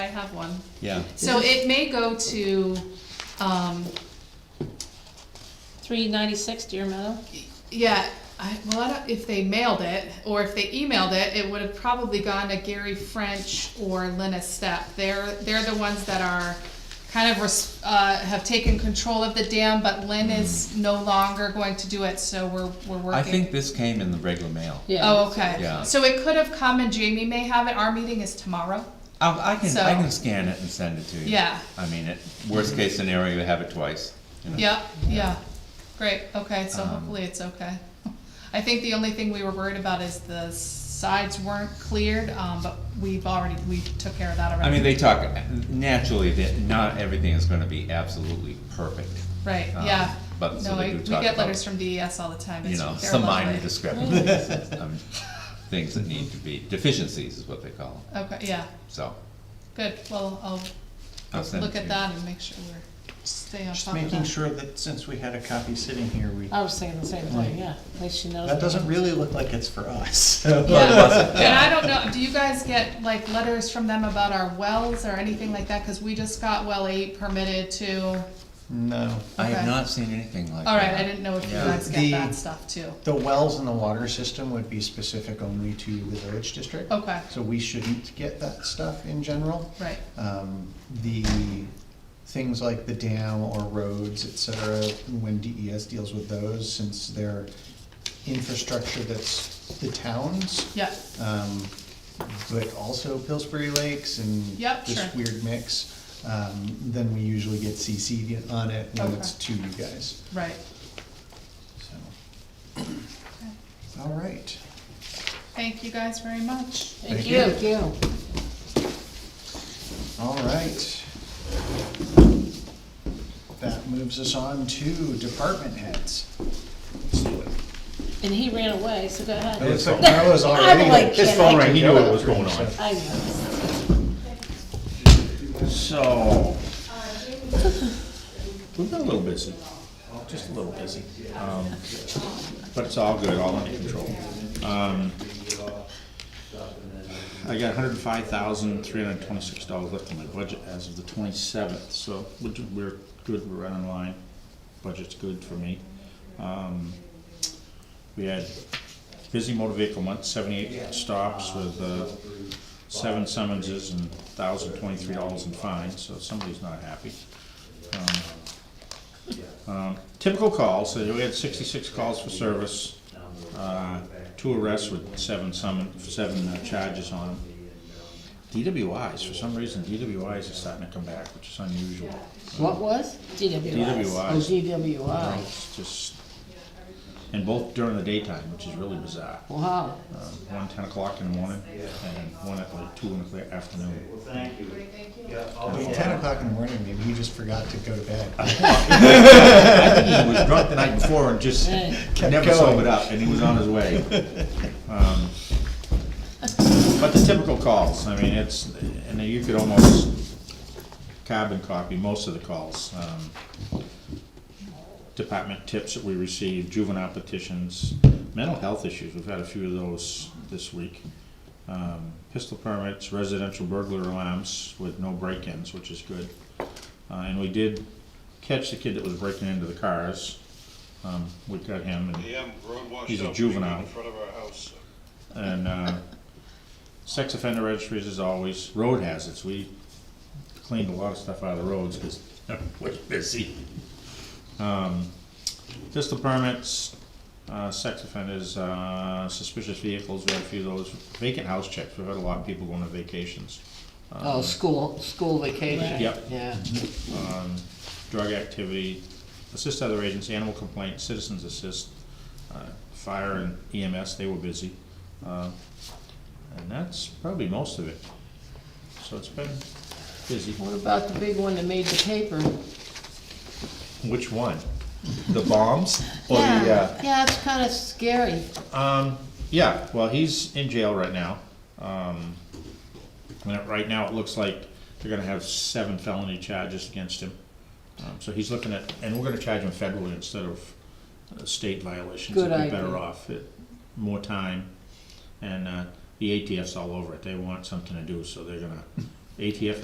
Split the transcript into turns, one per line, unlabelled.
have one.
Yeah,
So it may go to, um,
Three ninety-six Deer Meadow?
yeah, I, well, I don't, if they mailed it, or if they emailed it, it would have probably gone to Gary French or Lena Step. They're, they're the ones that are kind of, res- uh, have taken control of the dam, but Lynn is no longer going to do it, so we're, we're working.
I think this came in the regular mail.
Oh, okay.
Yeah.
So it could have come and Jamie may have it. Our meeting is tomorrow.
I, I can,
So-
I can scan it and send it to you.
Yeah.
I mean, it, worst case scenario, you have it twice, you know.
Yeah, yeah. Great, okay, so
Um,
hopefully it's okay. I think the only thing we were worried about is the sides weren't cleared, um, but we've already, we took care of that already.
I mean, they talk, naturally, that not everything is gonna be absolutely perfect.
Right,
um,
yeah.
but so
No,
they
I-
do
we
talk
get
about,
letters from DES all the time.
You
It's-
know,
they're
some minor
lovely.
discrepancies, um, things that need to be, deficiencies is what they call them,
Okay, yeah,
so.
good. Well, I'll
I'll send
look
it to
at
you.
that and make sure we're, stay on
Just
top of
making
that.
sure that since we had a copy sitting here, we,
I was saying the same
Right.
thing, yeah, at least she knows.
that
it.
doesn't really look like it's for us.
Yeah, and I don't know, do you guys get like letters from them about our wells or anything like that? Cause we just got well eight permitted to,
No.
I
Okay.
have not seen anything like that.
alright, I didn't know if you
Yeah.
guys get that
The-
stuff too.
The wells in the water system would be specific only to the village district.
Okay,
So we shouldn't get that stuff in general.
right,
Um, The things like the dam or roads, et cetera, when DES deals with those, since they're infrastructure that's the town's,
yeah,
um, but also Pillsbury Lakes and
Yep, sure.
this weird mix. Um, then we usually get CC'd on it when it's
Okay.
to you guys,
right.
so. All right,
Thank you guys very much.
Thank
Thank
you.
you.
you.
all right. That moves us on to department heads. Let's do it.
And he ran away, so go ahead.
That was- that was already-
like,
His
Yeah,
phone
I
rang, he knew what was going on.
I know.
So. We've been a little busy, just a little busy. um, But it's all good, all under control. Um, I got hundred and five thousand, three hundred and twenty-six dollars left in my budget as of the twenty-seventh, so we're, do- we're good, we're right on line. Budget's good for me. Um, We had busy motor vehicle month, seventy-eight stops with, uh, seven summonses and thousand twenty-three dollars in fines, so somebody's not happy. Um, um, Typical calls, so we had sixty-six calls for service, uh, two arrests with seven summon, seven uh, charges on them. DWIs, for some reason, DWIs are starting to come back, which is unusual.
What was? DWI.
DWIs.
Oh, DWI.
It's just, and both during the daytime, which is really bizarre.
Wow.
Uh, One ten o'clock in the morning and one at like two in the afternoon.
At Ten o'clock in the morning, maybe he just forgot to go to bed.
I think he was drunk the night before and just
Right.
Kept
never
going.
sobered up, and he was on his way. Um, But the typical calls, I mean, it's, and you could almost carbon copy most of the calls. Um, Department tips that we received, juvenile petitions, mental health issues, we've had a few of those this week. Um, Pistol permits, residential burglar alarms with no break-ins, which is good. Uh, and we did catch the kid that was breaking into the cars. Um, we got him and,
Yeah, road washed
He's a
up,
juvenile.
In front of our house.
and, uh, sex offender registries as always, road hazards, we cleaned a lot of stuff out of the roads because we're busy. Um, pistol permits, uh, sex offenders, uh, suspicious vehicles, we had a few of those, vacant house checks, we've had a lot of people going on vacations. Um,
Oh, school, school vacation.
Yep.
Yeah.
um, drug activity, assist other agents, animal complaints, citizens assist, uh, fire and EMS, they were busy. Uh, And that's probably most of it. So it's been busy.
What about the big one that made the paper?
Which one? The uh, bombs or
Yeah, yeah, it's kind of scary.
Um, yeah, well, he's in jail right now. Um, and it- right now, it looks like they're gonna have seven felony charges against him. Um, so he's looking at, and we're gonna charge him federally instead of uh, state violations.
Good
It'd be
idea.
Better off, It- more time, and, uh, the ATF's all over it, they want something to do, so they're gonna, ATF